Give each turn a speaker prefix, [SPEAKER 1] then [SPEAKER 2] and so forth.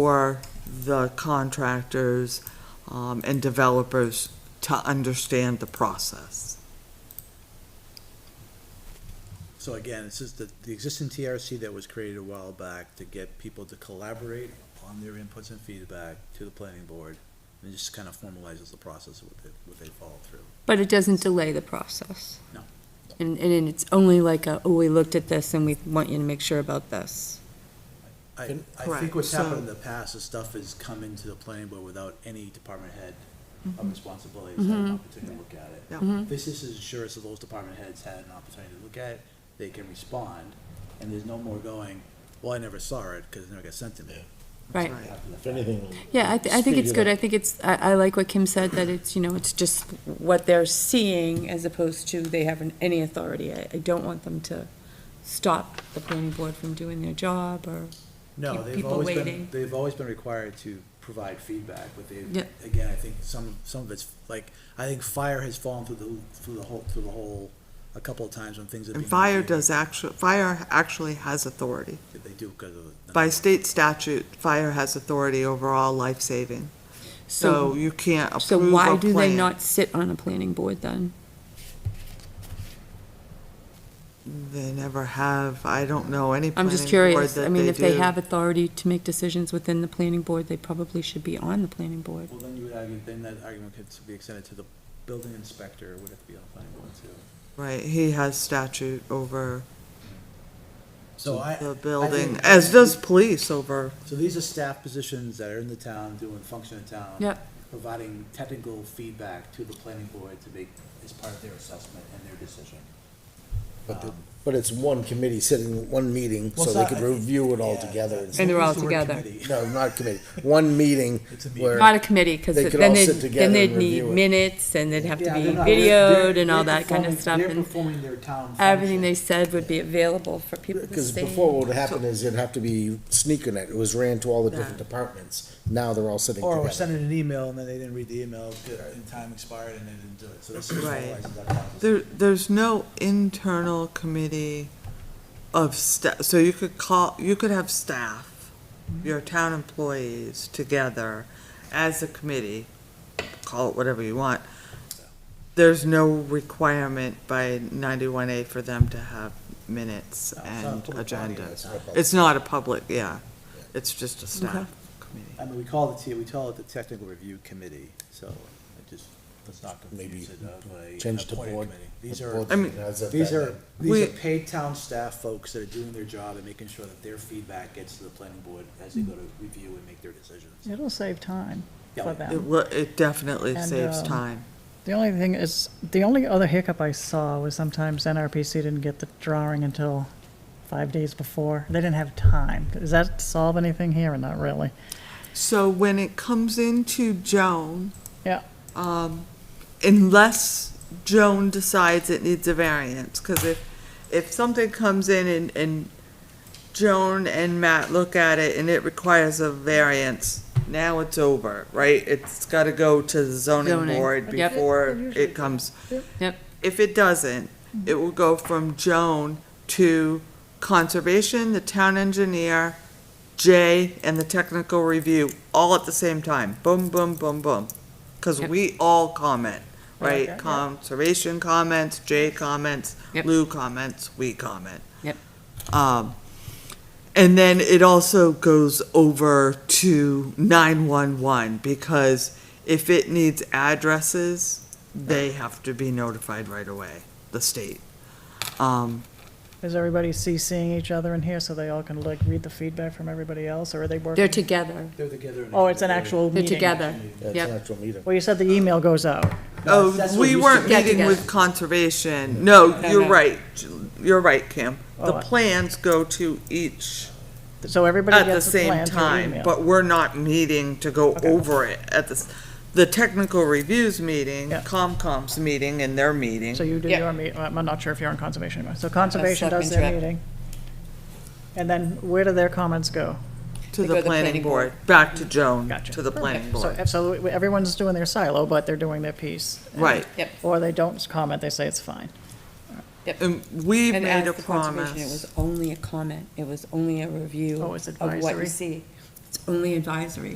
[SPEAKER 1] for the contractors um, and developers to understand the process.
[SPEAKER 2] So again, it's just the, the existing TRC that was created a while back to get people to collaborate on their inputs and feedback to the planning board, and it just kind of formalizes the process of what they, what they follow through.
[SPEAKER 3] But it doesn't delay the process.
[SPEAKER 2] No.
[SPEAKER 3] And, and it's only like a, oh, we looked at this and we want you to make sure about this.
[SPEAKER 2] I,
[SPEAKER 4] Can-
[SPEAKER 2] I
[SPEAKER 1] Correct,
[SPEAKER 2] think what's happened
[SPEAKER 1] so-
[SPEAKER 2] in the past is stuff has come into the planning board without any department head of responsibility has had an opportunity to look at it.
[SPEAKER 1] Mm-hmm. Yeah.
[SPEAKER 2] This is assurance that those department heads had an opportunity to look at it, they can respond, and there's no more going, well, I never saw it, because it never got sent to me.
[SPEAKER 3] Right.
[SPEAKER 1] Right.
[SPEAKER 2] After the
[SPEAKER 4] If anything,
[SPEAKER 3] Yeah, I, th- I think
[SPEAKER 4] Speed
[SPEAKER 3] it's
[SPEAKER 4] it
[SPEAKER 3] good.
[SPEAKER 4] up.
[SPEAKER 3] I think it's, I, I like what Kim said, that it's, you know, it's just what they're seeing as opposed to they haven't any authority. I, I don't want them to stop the planning board from doing their job or,
[SPEAKER 2] No,
[SPEAKER 3] keep
[SPEAKER 2] they've
[SPEAKER 3] people
[SPEAKER 2] always been,
[SPEAKER 3] waiting.
[SPEAKER 2] they've always been required to provide feedback, but they,
[SPEAKER 3] Yeah.
[SPEAKER 2] again, I think some, some of it's, like, I think fire has fallen through the, through the whole, through the whole, a couple of times when things have been.
[SPEAKER 1] And fire does actually, fire actually has authority.
[SPEAKER 2] They do because of. the-
[SPEAKER 1] By state statute, fire has authority over all life saving. So
[SPEAKER 3] so,
[SPEAKER 1] you can't approve
[SPEAKER 3] so
[SPEAKER 1] a
[SPEAKER 3] why do they
[SPEAKER 1] plan.
[SPEAKER 3] not sit on a planning board then?
[SPEAKER 1] They never have. I don't know any
[SPEAKER 3] I'm
[SPEAKER 1] planning
[SPEAKER 3] just
[SPEAKER 1] board
[SPEAKER 3] curious.
[SPEAKER 1] that
[SPEAKER 3] I mean, if they
[SPEAKER 1] do.
[SPEAKER 3] have authority to make decisions within the planning board, they probably should be on the planning board.
[SPEAKER 2] Well, then you would argue, then that argument could be extended to the building inspector, would have to be on the planning board too.
[SPEAKER 1] Right, he has statute over
[SPEAKER 2] So I.
[SPEAKER 1] the
[SPEAKER 2] I
[SPEAKER 1] building,
[SPEAKER 2] think-
[SPEAKER 1] as does police over,
[SPEAKER 2] So these are staff positions that are in the town, doing function of town.
[SPEAKER 3] Yep.
[SPEAKER 2] Providing technical feedback to the planning board to make, as part of their assessment and their decision.
[SPEAKER 4] but, the- but it's one committee sitting, in one meeting,
[SPEAKER 2] Well,
[SPEAKER 4] so
[SPEAKER 2] it's
[SPEAKER 4] they
[SPEAKER 2] not-
[SPEAKER 4] could review it all
[SPEAKER 2] Yeah.
[SPEAKER 4] together. and-
[SPEAKER 3] And they're all
[SPEAKER 2] Use the word
[SPEAKER 3] together.
[SPEAKER 2] committee.
[SPEAKER 4] No, not committee, one meeting
[SPEAKER 2] It's a meeting.
[SPEAKER 4] where,
[SPEAKER 3] Not a committee, because
[SPEAKER 4] They could
[SPEAKER 3] then
[SPEAKER 4] all
[SPEAKER 3] they'd,
[SPEAKER 4] sit
[SPEAKER 3] then
[SPEAKER 4] together
[SPEAKER 3] they'd
[SPEAKER 4] and
[SPEAKER 3] need
[SPEAKER 4] review it.
[SPEAKER 3] minutes, and they'd have to
[SPEAKER 2] Yeah,
[SPEAKER 3] be
[SPEAKER 2] they're not- they're-
[SPEAKER 3] videoed and all
[SPEAKER 2] they're
[SPEAKER 3] that kind of
[SPEAKER 2] performing-
[SPEAKER 3] stuff,
[SPEAKER 2] They're
[SPEAKER 3] and
[SPEAKER 2] performing their town function.
[SPEAKER 3] everything they said would be available for people to
[SPEAKER 4] because
[SPEAKER 3] see.
[SPEAKER 4] before what would happen is it'd have to be sneaking it, it was ran to all the
[SPEAKER 1] Yeah.
[SPEAKER 4] different departments, now they're all sitting
[SPEAKER 2] Or we're
[SPEAKER 4] together.
[SPEAKER 2] sending an email and then they didn't read the email, and time expired and they didn't do it, so this is.
[SPEAKER 1] Right.
[SPEAKER 2] formalizes that process.
[SPEAKER 1] there, there's no internal committee of staff, so you could call, you could have staff,
[SPEAKER 2] Mm-hmm.
[SPEAKER 1] your town employees together as a committee, call it whatever you want. There's no requirement by ninety-one A for them to have minutes
[SPEAKER 2] No, it's not a
[SPEAKER 1] and
[SPEAKER 2] public body,
[SPEAKER 1] agendas.
[SPEAKER 2] it's not a public-
[SPEAKER 1] It's not a public, yeah, it's just a staff committee.
[SPEAKER 2] I mean, we call it, the- we call it the technical review committee, so it just, let's not
[SPEAKER 4] Maybe
[SPEAKER 2] confuse it of a.
[SPEAKER 4] change to
[SPEAKER 2] appointed
[SPEAKER 4] board.
[SPEAKER 2] committee. These
[SPEAKER 4] the
[SPEAKER 2] are.
[SPEAKER 4] board
[SPEAKER 1] I mean,
[SPEAKER 4] as of
[SPEAKER 2] These
[SPEAKER 4] that
[SPEAKER 2] are,
[SPEAKER 4] day.
[SPEAKER 2] these are
[SPEAKER 1] We-
[SPEAKER 2] paid town staff folks that are doing their job and making sure that their feedback gets to the planning board as they go to review and make their decisions.
[SPEAKER 5] It'll save time
[SPEAKER 2] Yeah.
[SPEAKER 5] for
[SPEAKER 1] It,
[SPEAKER 5] them.
[SPEAKER 1] will- it definitely
[SPEAKER 5] And,
[SPEAKER 1] saves
[SPEAKER 5] um,
[SPEAKER 1] time.
[SPEAKER 5] The only thing is, the only other hiccup I saw was sometimes NRPC didn't get the drawing until five days before. They didn't have time. Does that solve anything here or not really?
[SPEAKER 1] So when it comes into Joan, um,
[SPEAKER 5] Yeah.
[SPEAKER 1] unless Joan decides it needs a variance, because if, if something comes in and, and Joan and Matt look at it and it requires a variance, now it's over, right? It's gotta go to the zoning
[SPEAKER 3] Zoning,
[SPEAKER 1] board
[SPEAKER 3] yep.
[SPEAKER 1] before it comes.
[SPEAKER 3] Yep.
[SPEAKER 1] If it doesn't, it will go from Joan to conservation, the town engineer, Jay, and the technical review, all at the same time. Boom, boom, boom, boom. Cause
[SPEAKER 3] Yep.
[SPEAKER 1] we all comment,
[SPEAKER 5] Yeah,
[SPEAKER 1] right?
[SPEAKER 5] yeah.
[SPEAKER 1] Conservation comments, Jay comments,
[SPEAKER 3] Yep.
[SPEAKER 1] Lou comments, we comment.
[SPEAKER 3] Yep.
[SPEAKER 1] Um, and then it also goes over to nine-one-one, because if it needs addresses, they have to be notified right away, the state. Um,
[SPEAKER 5] Is everybody CCing each other in here so they all can like read the feedback from everybody else or are they working?
[SPEAKER 3] They're together.
[SPEAKER 2] They're together. in a-
[SPEAKER 5] Oh, it's an actual
[SPEAKER 3] They're
[SPEAKER 5] meeting.
[SPEAKER 3] together.
[SPEAKER 4] Yeah, it's
[SPEAKER 3] Yep.
[SPEAKER 4] an actual meeting.
[SPEAKER 5] Well, you said the email goes out.
[SPEAKER 2] No, that's
[SPEAKER 1] oh,
[SPEAKER 2] what
[SPEAKER 1] we
[SPEAKER 2] used to
[SPEAKER 1] weren't
[SPEAKER 2] be.
[SPEAKER 3] Get
[SPEAKER 1] meeting with
[SPEAKER 3] together.
[SPEAKER 1] conservation, no,
[SPEAKER 3] No,
[SPEAKER 1] you're
[SPEAKER 3] no.
[SPEAKER 1] right, you're right, Kim. The
[SPEAKER 5] Oh, I-
[SPEAKER 1] plans go to each
[SPEAKER 5] So everybody
[SPEAKER 1] at the
[SPEAKER 5] gets the
[SPEAKER 1] same
[SPEAKER 5] plan through
[SPEAKER 1] time,
[SPEAKER 5] email.
[SPEAKER 1] but we're not meeting to go
[SPEAKER 5] Okay.
[SPEAKER 1] over it at the, the technical reviews meeting,
[SPEAKER 5] Yeah.
[SPEAKER 1] COMCOM's meeting and their meeting.
[SPEAKER 5] So you do
[SPEAKER 3] Yeah.
[SPEAKER 5] your meet, I'm not sure if you're on conservation anymore. So conservation does
[SPEAKER 3] Selectmen's
[SPEAKER 5] their
[SPEAKER 3] rep.
[SPEAKER 5] meeting. And then where do their comments go?
[SPEAKER 1] To the
[SPEAKER 3] They go to the
[SPEAKER 1] planning
[SPEAKER 3] planning
[SPEAKER 1] board, back to Joan,
[SPEAKER 5] Gotcha.
[SPEAKER 1] to the planning
[SPEAKER 5] So
[SPEAKER 1] board.
[SPEAKER 5] absolutely, everyone's doing their silo, but they're doing their piece. And-
[SPEAKER 1] Right.
[SPEAKER 3] Yep.
[SPEAKER 5] Or they don't comment, they say it's fine.
[SPEAKER 1] And we
[SPEAKER 3] And
[SPEAKER 1] made
[SPEAKER 3] as
[SPEAKER 1] a
[SPEAKER 3] the conservation, it
[SPEAKER 1] promise.
[SPEAKER 3] was only a comment, it was only a review
[SPEAKER 5] Oh, it's
[SPEAKER 3] of what you
[SPEAKER 5] advisory.
[SPEAKER 3] see. It's only advisory,